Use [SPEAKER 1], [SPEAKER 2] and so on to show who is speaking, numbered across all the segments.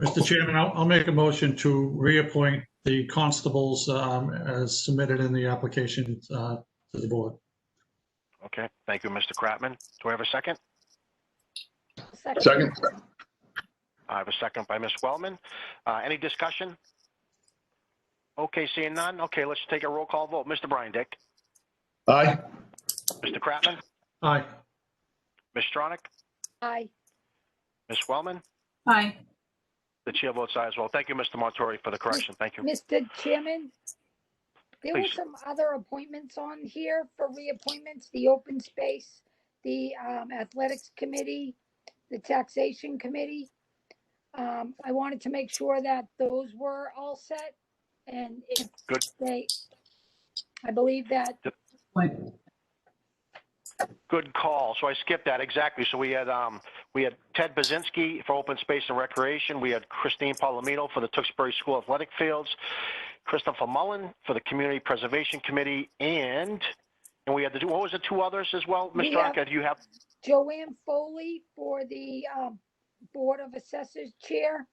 [SPEAKER 1] Mr. Chairman, I'll, I'll make a motion to reappoint the constables um, as submitted in the application uh, to the board.
[SPEAKER 2] Okay, thank you, Mr. Kratman. Do I have a second?
[SPEAKER 3] Second.
[SPEAKER 4] Second?
[SPEAKER 2] I have a second by Ms. Wellman. Uh, any discussion? Okay, seeing none. Okay, let's take a roll call vote. Mr. Brian Dick,
[SPEAKER 4] Aye.
[SPEAKER 2] Mr. Kratman,
[SPEAKER 1] Aye.
[SPEAKER 2] Ms. Stronach,
[SPEAKER 3] Aye.
[SPEAKER 2] Ms. Wellman,
[SPEAKER 5] aye,
[SPEAKER 2] the chair votes aye as well. Thank you, Mr. Montori, for the correction. Thank you.
[SPEAKER 3] Mr. Chairman, there were
[SPEAKER 2] Please.
[SPEAKER 3] some other appointments on here for reappointments, the open space, the um, athletics committee, the taxation committee. Um, I wanted to make sure that those were all set and if
[SPEAKER 2] Good.
[SPEAKER 3] they, I believe that,
[SPEAKER 5] Like,
[SPEAKER 2] Good call. So I skipped that, exactly. So we had, um, we had Ted Bazinski for Open Space and Recreation. We had Christine Palomino for the Tewksbury School Athletic Fields, Christopher Mullen for the Community Preservation Committee, and, and we had the, two. what was the two others as well? Ms.
[SPEAKER 3] We have-
[SPEAKER 2] Stronach, do you have,
[SPEAKER 3] Joanne Foley for the um, Board of Assessors Chair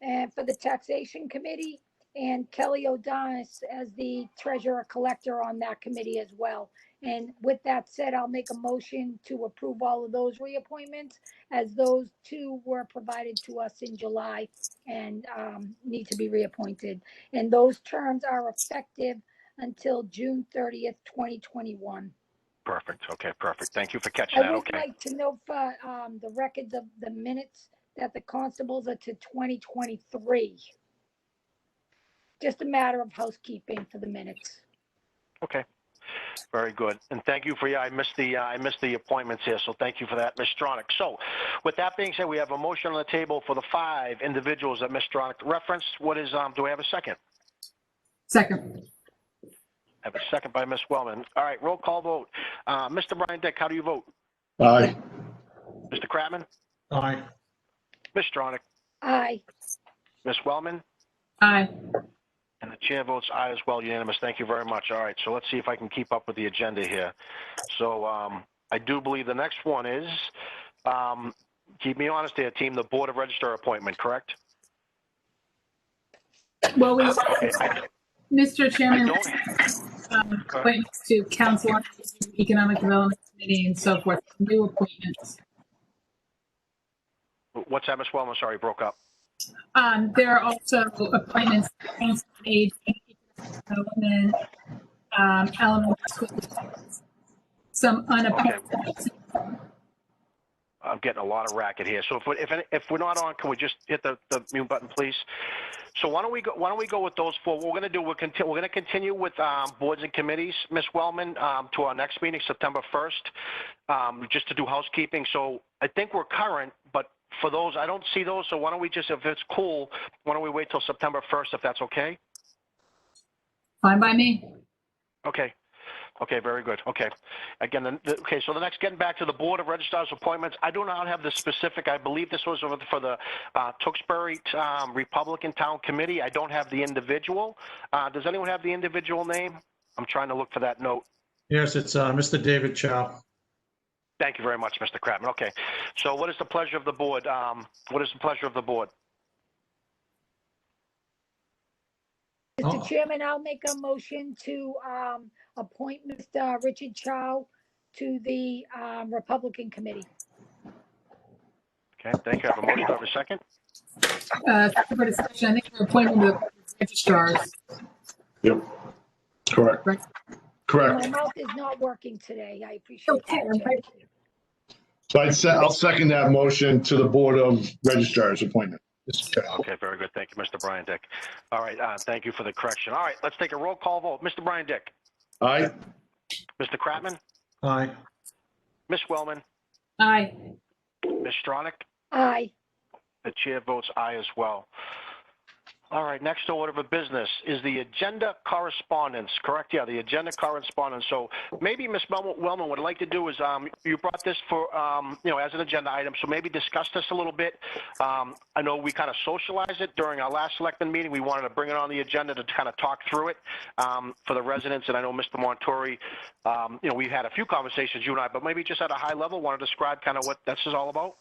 [SPEAKER 3] and for the Taxation Committee, and Kelly O'Donis as the Treasurer Collector on that committee as well. And with that said, I'll make a motion to approve all of those reappointments as those two were provided to us in July and um, need to be reappointed. And those terms are effective until June 30th, 2021.
[SPEAKER 2] perfect, okay, perfect. Thank you for catching
[SPEAKER 3] I
[SPEAKER 2] that,
[SPEAKER 3] would
[SPEAKER 2] okay.
[SPEAKER 3] like to know for, um, the records of the minutes that the constables are to twenty twenty-three. Just a matter of housekeeping for the minutes.
[SPEAKER 2] Okay, very good. And thank you for, yeah, I missed the, uh, I missed the appointments here, so thank you for that, Ms. Stronach. So with that being said, we have a motion on the table for the five individuals that Ms. Stronach referenced. What is, um, do I have a second?
[SPEAKER 5] second,
[SPEAKER 2] I have a second by Ms. Wellman. All right, roll call vote. Uh, Mr. Brian Dick, how do you vote?
[SPEAKER 4] Aye.
[SPEAKER 2] Mr. Kratman?
[SPEAKER 1] Aye.
[SPEAKER 2] Ms. Stronach?
[SPEAKER 3] Aye,
[SPEAKER 2] Ms. Wellman?
[SPEAKER 5] aye,
[SPEAKER 2] And the chair votes aye as well, unanimous. Thank you very much. All right, so let's see if I can keep up with the agenda here. So um, I do believe the next one is, um, keep me honest here, team, the Board of Register appointment, correct?
[SPEAKER 5] well, we,
[SPEAKER 2] Okay, I
[SPEAKER 5] Mr.
[SPEAKER 2] I
[SPEAKER 5] Chairman,
[SPEAKER 2] don't,
[SPEAKER 5] um, appointments to council, on Aging, economic development committee and so forth, new appointments.
[SPEAKER 2] what's that, Ms. Wellman? Sorry, broke up.
[SPEAKER 5] Um, there are also appointments, to council on Aging, economic development, um, elementary schools, some unappointed.
[SPEAKER 2] I'm getting a lot of racket here. So if, we- if, any- if we're not on, can we just hit the, the mute button, please? So why don't we go, why don't we go with those four? What we're gonna do, we're conti- we're gonna continue with, um, boards and committees, Ms. Wellman, um, to our next meeting, September first, um, just to do housekeeping. So I think we're current, but for those, I don't see those, so why don't we just, if it's cool, why don't we wait till September first, if that's okay?
[SPEAKER 5] Fine by me.
[SPEAKER 2] Okay. Okay, very good. Okay. Again, the, the- okay, so the next, getting back to the Board of Registrars appointments, I do not have the specific, I believe this was over the- for the uh, Tewksbury um, Republican Town Committee. I don't have the individual. Uh, Does anyone have the individual name? I'm trying to look for that note.
[SPEAKER 1] Yes, it's uh, Mr. David Chow.
[SPEAKER 2] Thank you very much, Mr. Kratman. Okay. So what is the pleasure of the board? Um, What is the pleasure of the board?
[SPEAKER 3] Mr.
[SPEAKER 1] Oh.
[SPEAKER 3] Chairman, I'll make a motion to, um, appoint Mr. Richard Chow to the, um, Republican Committee.
[SPEAKER 2] Okay, thank you. I have a motion. Do I have a second?
[SPEAKER 5] Uh, for discussion, I think we're appointing the registrars.
[SPEAKER 4] Yep. Correct.
[SPEAKER 5] Right.
[SPEAKER 3] My
[SPEAKER 4] Correct.
[SPEAKER 3] mouth is not working today. I appreciate
[SPEAKER 5] Okay,
[SPEAKER 3] it.
[SPEAKER 5] right.
[SPEAKER 4] So I'd se, I'll second that motion to the Board of Registrars appointment. Mr. Chair.
[SPEAKER 2] Okay, very good. Thank you, Mr. Brian Dick. All right, uh, thank you for the correction. All right, let's take a roll call vote. Mr. Brian Dick?
[SPEAKER 4] Aye.
[SPEAKER 2] Mr. Kratman?
[SPEAKER 1] Aye.
[SPEAKER 2] Ms. Wellman?
[SPEAKER 5] Aye,
[SPEAKER 2] Ms. Stronach?
[SPEAKER 3] Aye,
[SPEAKER 2] The chair votes aye as well. All right, next order of business is the agenda correspondence, correct? Yeah, the agenda correspondence. So maybe Ms. Mel- Wellman would like to do is, um, you brought this for, um, you know, as an agenda item, so maybe discuss this a little bit. Um, I know we kind of socialized it during our last selectman meeting. We wanted to bring it on the agenda to kind of talk through it, um, for the residents. And I know Mr. Montori, um, you know, we've had a few conversations, you and I, but maybe just at a high level, want to describe kind of what this is all about?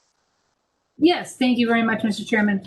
[SPEAKER 5] yes, thank you very much, Mr. Chairman.